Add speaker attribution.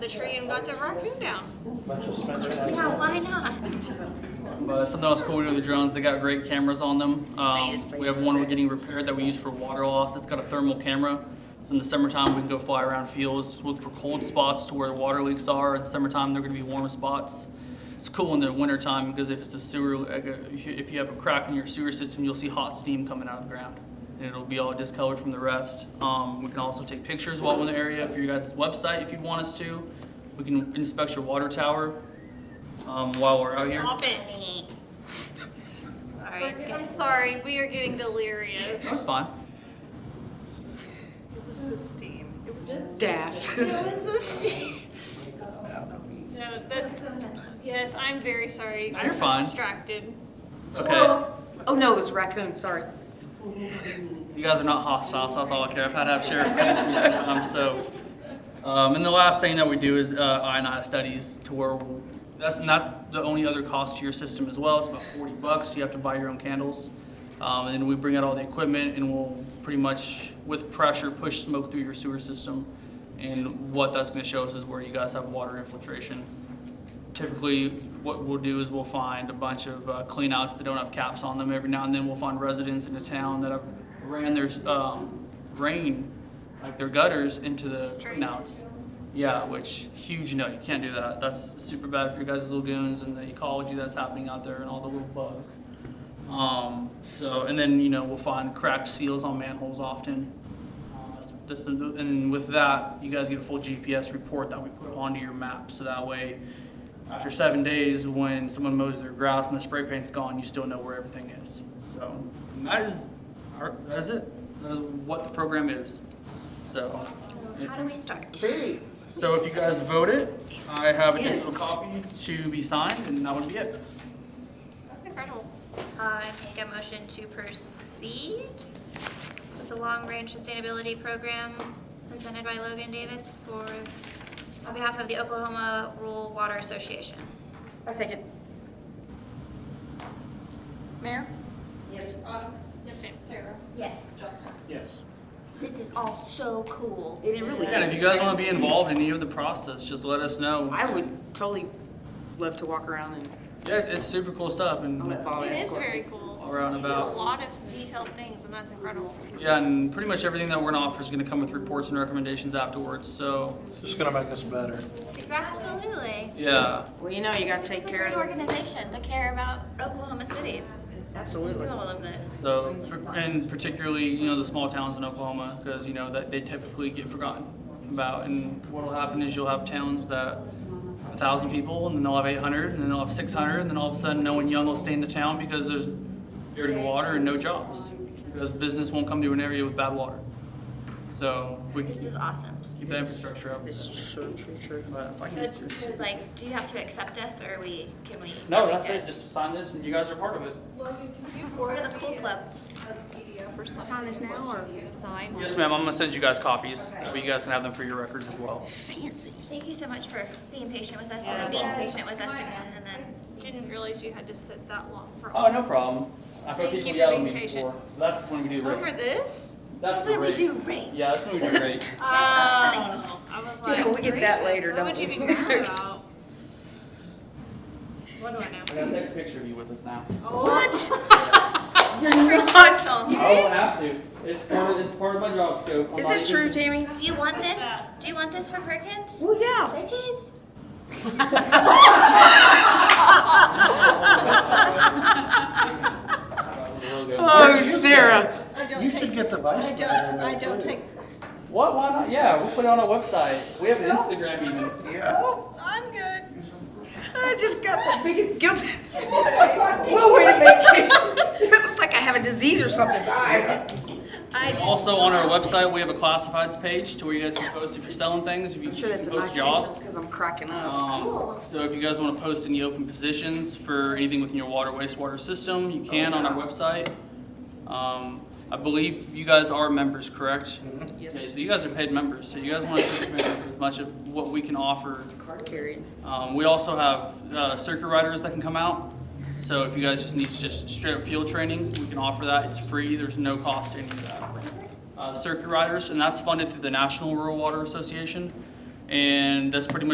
Speaker 1: the tree and got the raccoon down.
Speaker 2: Bunch of Spencer houses.
Speaker 1: Yeah, why not?
Speaker 3: But Uh, something else cool we do with the drones, they got great cameras on them. Um,
Speaker 1: use for
Speaker 3: we have one we're getting repaired that we use for water loss. It's got a thermal camera. So in the summertime, we can go fly around fields, look for cold spots to where the water leaks are. In summertime, they're going to be warm spots. It's cool in the wintertime because if it's a sewer, like a- if you- if you have a crack in your sewer system, you'll see hot steam coming out of the ground. And it'll be all discolored from the rest. Um, we can also take pictures while we're in the area for your guys' website if you'd want us to. We can inspect your water tower um, while we're out here.
Speaker 1: Stop it. Alright, I'm sorry, we are getting delirious.
Speaker 3: That's fine.
Speaker 4: Staff.
Speaker 1: No, that's, yes, I'm very sorry.
Speaker 3: No,
Speaker 1: I
Speaker 3: you're
Speaker 1: got
Speaker 3: fine.
Speaker 1: Distracted.
Speaker 3: It's okay.
Speaker 4: Oh, no, it was raccoon, sorry.
Speaker 3: You guys are not hostile, so that's all I care. I've had to have sheriffs come at me sometimes, so. Um, and the last thing that we do is uh, ionized studies to where, that's, and that's the only other cost to your system as well. It's about 40 bucks. You have to buy your own candles. Um, and then we bring out all the equipment and we'll pretty much, with pressure, push smoke through your sewer system. And what that's going to show us is where you guys have water infiltration. typically what we'll do is we'll find a bunch of uh, cleanouts that don't have caps on them. Every now and then we'll find residents in a town that have ran their um, rain, like their gutters, into the cleanouts. Yeah, which huge no, you can't do that. That's super bad for your guys' lagoons and the ecology that's happening out there and all the little bugs. Um, so, and then you know we'll find cracked seals on manholes often. Um, that's- that's the- And with that, you guys get a full GPS report that we put onto your map, so that way, after seven days, when someone mows their grass and the spray paint's gone, you still know where everything is. So, and that is, our- that is it, that is what the program is, so.
Speaker 1: How do we start?
Speaker 3: So if you guys vote it, I have a digital
Speaker 4: Yes.
Speaker 3: copy to be signed, and that would be it.
Speaker 1: That's incredible. Uh, I make a motion to proceed with the Long Range Sustainability Program presented by Logan Davis for, on behalf of the Oklahoma Rural Water Association.
Speaker 4: A second.
Speaker 1: Mayor?
Speaker 4: Yes.
Speaker 1: Autumn? Yes, Sarah? Yes. Justin?
Speaker 2: Yes.
Speaker 1: This is all so cool.
Speaker 4: It really
Speaker 3: And if you
Speaker 4: is.
Speaker 3: guys wanna be involved in any of the process, just let us know.
Speaker 4: I would totally love to walk around and
Speaker 3: Yeah, it's- it's super cool stuff, and
Speaker 4: I'll let Bob
Speaker 5: It
Speaker 4: ask
Speaker 5: is
Speaker 4: questions.
Speaker 5: very cool.
Speaker 3: all around
Speaker 5: You do
Speaker 3: about.
Speaker 5: a lot of detailed things, and that's incredible.
Speaker 3: Yeah, and pretty much everything that we're gonna offer is gonna come with reports and recommendations afterwards, so,
Speaker 2: It's just gonna make us better.
Speaker 1: Absolutely.
Speaker 3: yeah.
Speaker 4: Well, you know, you gotta take
Speaker 5: It's a
Speaker 4: care
Speaker 5: great
Speaker 4: of it.
Speaker 5: organization to care about
Speaker 1: Oklahoma cities do
Speaker 4: Absolutely.
Speaker 1: all of this.
Speaker 3: So, and particularly, you know, the small towns in Oklahoma, because, you know, that they typically get forgotten about. And what'll happen is you'll have towns that a thousand people, and then they'll have eight hundred, and then they'll have six hundred, and then all of a sudden, no one young will stay in the town because there's dirty water and no jobs. Because business won't come to an area with bad water. So, if we can
Speaker 1: This is awesome.
Speaker 3: keep that infrastructure up.
Speaker 4: It's true, true, true.
Speaker 3: But if I
Speaker 1: So,
Speaker 3: can just-
Speaker 1: so, like, do you have to accept us, or we, can we? are
Speaker 3: No,
Speaker 1: we
Speaker 3: that's
Speaker 1: good?
Speaker 3: it, just sign this and you guys are part of it.
Speaker 1: We're the cool club.
Speaker 5: Sign this now or sign?
Speaker 3: Yes, ma'am, I'm gonna send you guys copies, that way you guys can have them for your records as well.
Speaker 1: Thank you so much for being patient with us, and then being patient with us again, and then.
Speaker 5: Didn't realize you had to sit that long for.
Speaker 3: Oh, no problem. I've had
Speaker 5: Thank you
Speaker 3: people
Speaker 5: for
Speaker 3: yell at
Speaker 5: being
Speaker 3: me
Speaker 5: patient.
Speaker 3: before. That's when we do
Speaker 5: Over
Speaker 3: rates.
Speaker 5: this?
Speaker 3: That's the
Speaker 1: when we
Speaker 3: rates.
Speaker 1: do rates.
Speaker 3: Yeah, that's when we do rates.
Speaker 5: Oh, I was like.
Speaker 4: Yeah, we get that
Speaker 5: gracious,
Speaker 4: later,
Speaker 5: What
Speaker 4: don't
Speaker 5: would you
Speaker 4: we?
Speaker 5: be mad about? What do I know?
Speaker 3: I gotta take a picture of you with us now.
Speaker 5: What?
Speaker 4: What?
Speaker 3: I will have to. It's part of, it's part of my job scope. I'm
Speaker 4: Is
Speaker 3: not
Speaker 4: that
Speaker 3: even-
Speaker 4: true, Tammy?
Speaker 1: Do you want this? Do you want this for Perkins?
Speaker 4: Well, yeah.
Speaker 1: Say cheese.
Speaker 4: Oh, Sarah.
Speaker 2: You should get the vice
Speaker 5: Oh, I
Speaker 2: mayor.
Speaker 5: don't, I don't take,
Speaker 3: What, why not? Yeah, we'll put it on our website. We have an Instagram even.
Speaker 4: I'm good. I just got the biggest guilt. Well, wait a minute. It looks like I have a disease or something. Bye.
Speaker 5: I do.
Speaker 3: Also, on our website, we have a classifieds page to where you guys can post if you're selling things, if you
Speaker 4: I'm sure
Speaker 3: can
Speaker 4: that's a nice
Speaker 3: post
Speaker 4: picture
Speaker 3: jobs.
Speaker 4: because I'm cracking up.
Speaker 3: Um, so if you guys want to post any open positions for anything within your water wastewater system, you can on our website. Um, I believe you guys are members, correct? Okay,
Speaker 4: Yes.
Speaker 3: so you guys are paid members, so you guys want to take advantage of as much of what we can offer.
Speaker 4: Card carried.
Speaker 3: Um, we also have uh, circuit riders that can come out. So if you guys just need just straight up field training, we can offer that. It's free. There's no cost to any of that uh, circuit riders, and that's funded through the National Rural Water Association. And that's pretty much